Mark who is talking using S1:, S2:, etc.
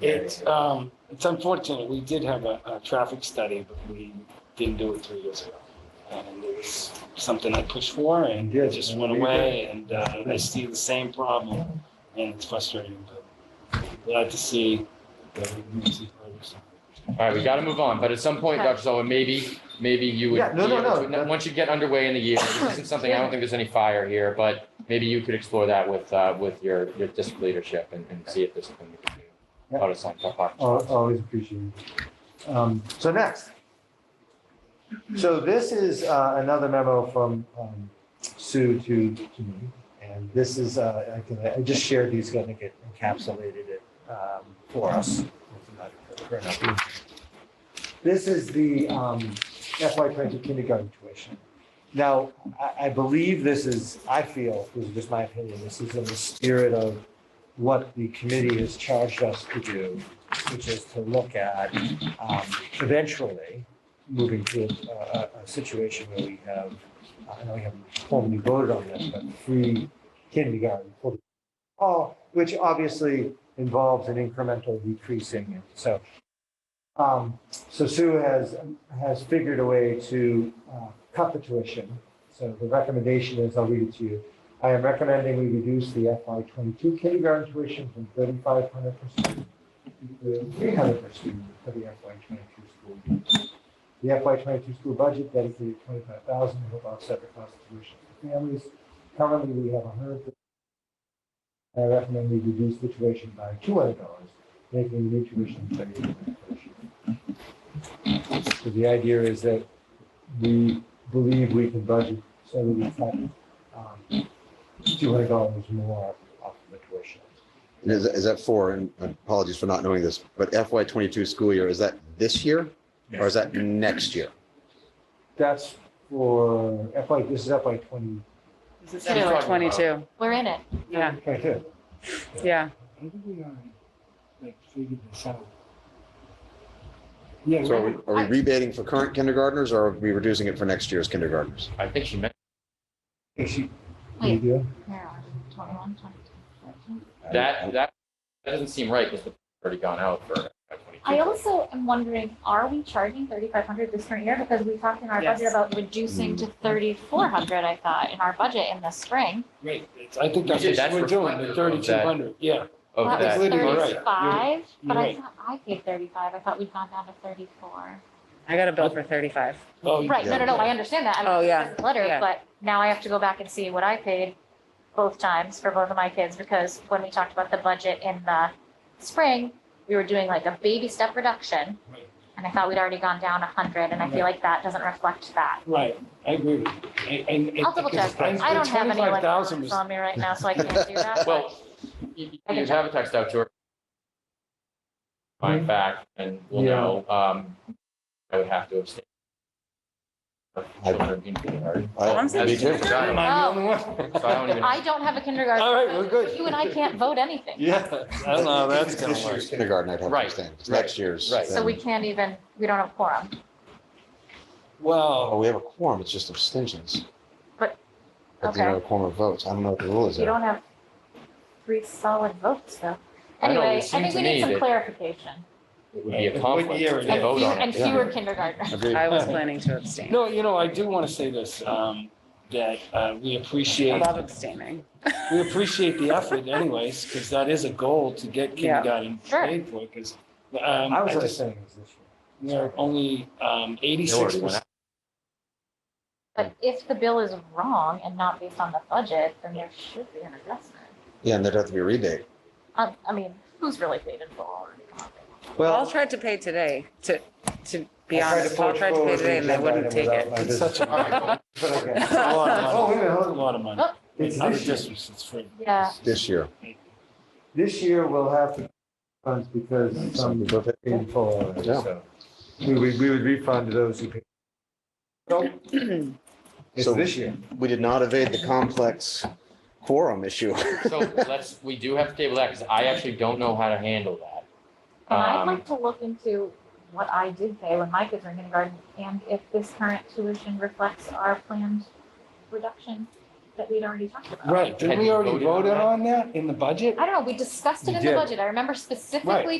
S1: It's, um, it's unfortunate. We did have a, a traffic study, but we didn't do it three years ago. And it was something I pushed for and
S2: Yeah,
S1: it just went
S2: we did.
S1: away and, uh, I see the same problem and it's frustrating, but glad to see. that we can see progress.
S3: All right, we got to move on, but at some point, Dr. Sullivan, maybe, maybe you would.
S2: Yeah, no,
S3: be
S2: no,
S3: able
S2: no,
S3: to-
S2: that-
S3: Once you get underway in the year, this isn't something, I don't think there's any fire here, but maybe you could explore that with, uh, with your, your district leadership and, and see if there's something we can do.
S2: Yeah.
S3: Out of some,
S2: Al- Always appreciated. Um, So next. So this is uh, another memo from um, Sue to to me. And this is, uh, I can- I just shared these, I think it encapsulated it um, for us. This is the um, FY twenty kindergarten tuition. Now, I, I believe this is, I feel, this is just my opinion, this is in the spirit of what the committee has charged us to do, which is to look at um, eventually moving to a, a- a situation where we have, I know we haven't formally voted on this, but free kindergarten for all, which obviously involves an incremental decreasing. So, um, so Sue has, has figured a way to uh, cut the tuition. So the recommendation is, I'll read it to you. I am recommending we reduce the FY twenty-two kindergarten tuition from thirty-five hundred per student to three hundred per student for the FY twenty-two school. year. The FY twenty-two school budget dedicated twenty-five thousand to help offset the cost of tuition for families. Currently, we have hundred. I recommend we reduce the tuition by two hundred dollars, making the new tuition thirty. So the idea is that we believe we can budget so that we can um, two hundred dollars more off the tuition.
S4: And is, is that for, and apologies for not knowing this, but FY twenty-two school year, is that this year? Or is that next year?
S2: That's for FY, this is FY twenty,
S5: This is
S3: Two.
S5: number 22.
S6: We're in it.
S5: Yeah,
S2: twenty-two.
S5: yeah.
S1: I think we already like figured this out. Yeah.
S4: So are we,
S1: we-
S4: are we rebating for current kindergartners or are we reducing it for next year's kindergartners?
S3: I think she meant,
S2: You do?
S6: Where are we? 21, 22.
S3: that, that, that doesn't seem right because the already gone out for uh,
S6: I
S3: 22.
S6: also am wondering, are we charging thirty-five hundred this current year? Because we talked in our budget
S5: Yes.
S6: about reducing to thirty-four hundred, I thought, in our budget in the spring.
S1: Right, it's- I think that's
S3: We did,
S1: what
S3: that's
S1: we're doing, the
S3: reflective of that.
S1: thirty-two hundred, yeah.
S3: Of
S6: That
S3: that.
S6: was
S1: Literally, right.
S6: thirty-five, but I
S1: right.
S6: thought I paid thirty-five. I thought we'd gone down to thirty-four.
S5: I got a bill for 35.
S1: Oh,
S6: Right, no, no, no, I understand that. I mean,
S5: Oh,
S6: it
S5: yeah,
S6: says Letter,
S5: yeah.
S6: but now I have to go back and see what I paid both times for both of my kids, because when we talked about the budget in the spring, we were doing like a baby step reduction.
S1: Right.
S6: And I thought we'd already gone down a hundred, and I feel like that doesn't reflect that.
S1: Right, I agree with you. And- And.
S6: I'll double check. I don't have any
S1: Twenty-five
S6: like
S1: thousand
S6: numbers
S1: was,
S6: on me right now, so I can't do that. but-
S3: Well, you you can have a text out to her. Find back and we'll
S2: Yeah.
S3: know, um, I would have to abstain. Children in kindergarten.
S4: I-
S5: I'm saying-
S4: Me too.
S3: So
S1: am
S6: Oh.
S1: I the only one?
S3: I don't even.
S6: I don't have a kindergarten.
S1: All right, we're good.
S6: so You and I can't vote anything,
S1: Yeah, I don't know, that's gonna
S4: This
S1: work.
S4: year's kindergarten, I'd have to
S3: Right,
S4: understand. It's
S3: right,
S4: next year's.
S3: right.
S6: so we can't even, we don't have quorum.
S4: Oh,
S1: Well,
S4: we have a quorum, it's just abstentions.
S6: But-
S4: I think we have a
S6: okay.
S4: quorum of votes. I don't know what the rule is
S6: You
S4: there.
S6: don't have three solid votes, though.
S3: I know, it
S6: Anyway, I
S3: seemed
S6: think
S3: to
S6: we
S3: me
S6: need some
S3: that-
S6: clarification.
S3: It would be a
S1: What
S3: conflict
S1: year
S3: to
S1: is
S6: And
S1: it?
S3: vote
S6: fewer,
S3: on
S6: and
S3: it.
S4: yeah.
S6: fewer kindergartners.
S4: Agreed.
S5: I was planning to abstain.
S1: no, you know, I do want to say this, um, that uh, we
S5: I
S1: appreciate,
S5: love abstaining.
S1: we appreciate the effort anyways, because that is a goal to get
S5: Yeah.
S1: kindergarten
S6: Sure.
S1: paid for, because
S2: I
S1: I
S2: was just
S1: just,
S2: saying it was this year.
S1: we're only um, eighty-six
S3: It
S1: percent.
S3: went
S6: But if the bill is wrong and not based on the budget, then there should be an adjustment.
S4: Yeah, and there'd have to be a rebate.
S6: Um, I mean, who's really paid in full?
S5: Paul
S2: Well,
S5: tried to pay today, to, to
S2: I
S5: be
S2: tried to
S5: honest. Paul
S2: push
S5: tried to pay
S2: forward
S5: today and they
S2: the
S5: wouldn't
S2: agenda
S5: take
S2: item
S5: it.
S2: without my
S1: It's such a,
S2: business.
S3: out.
S2: But okay.
S1: it's a lot of
S2: Oh,
S1: money,
S2: wait a minute,
S1: a
S2: hold on.
S1: lot of money.
S6: Oh.
S2: It's
S1: In other
S2: this year.
S1: districts, it's free.
S6: Yeah,
S4: This year.
S2: This year we'll have to funds because
S4: Some
S2: some
S4: people pay-
S2: paid for, it,
S4: Yeah.
S2: so. We would, we would refund those who paid. So It's
S4: So-
S2: this year.
S4: We did not evade the complex quorum issue.
S3: So let's, we do have to table that because I actually don't know how to handle that.
S6: and I'd
S3: Um,
S6: like to look into what I did pay when my kids were in kindergarten and if this current tuition reflects our planned reduction that we'd already talked about.
S1: Right, did
S3: Had
S1: we
S3: you
S1: already
S3: voted on
S1: voted
S3: that?
S1: on that in the budget?
S6: I don't know, we discussed it
S2: You
S6: in the
S2: did.
S6: budget. I remember specifically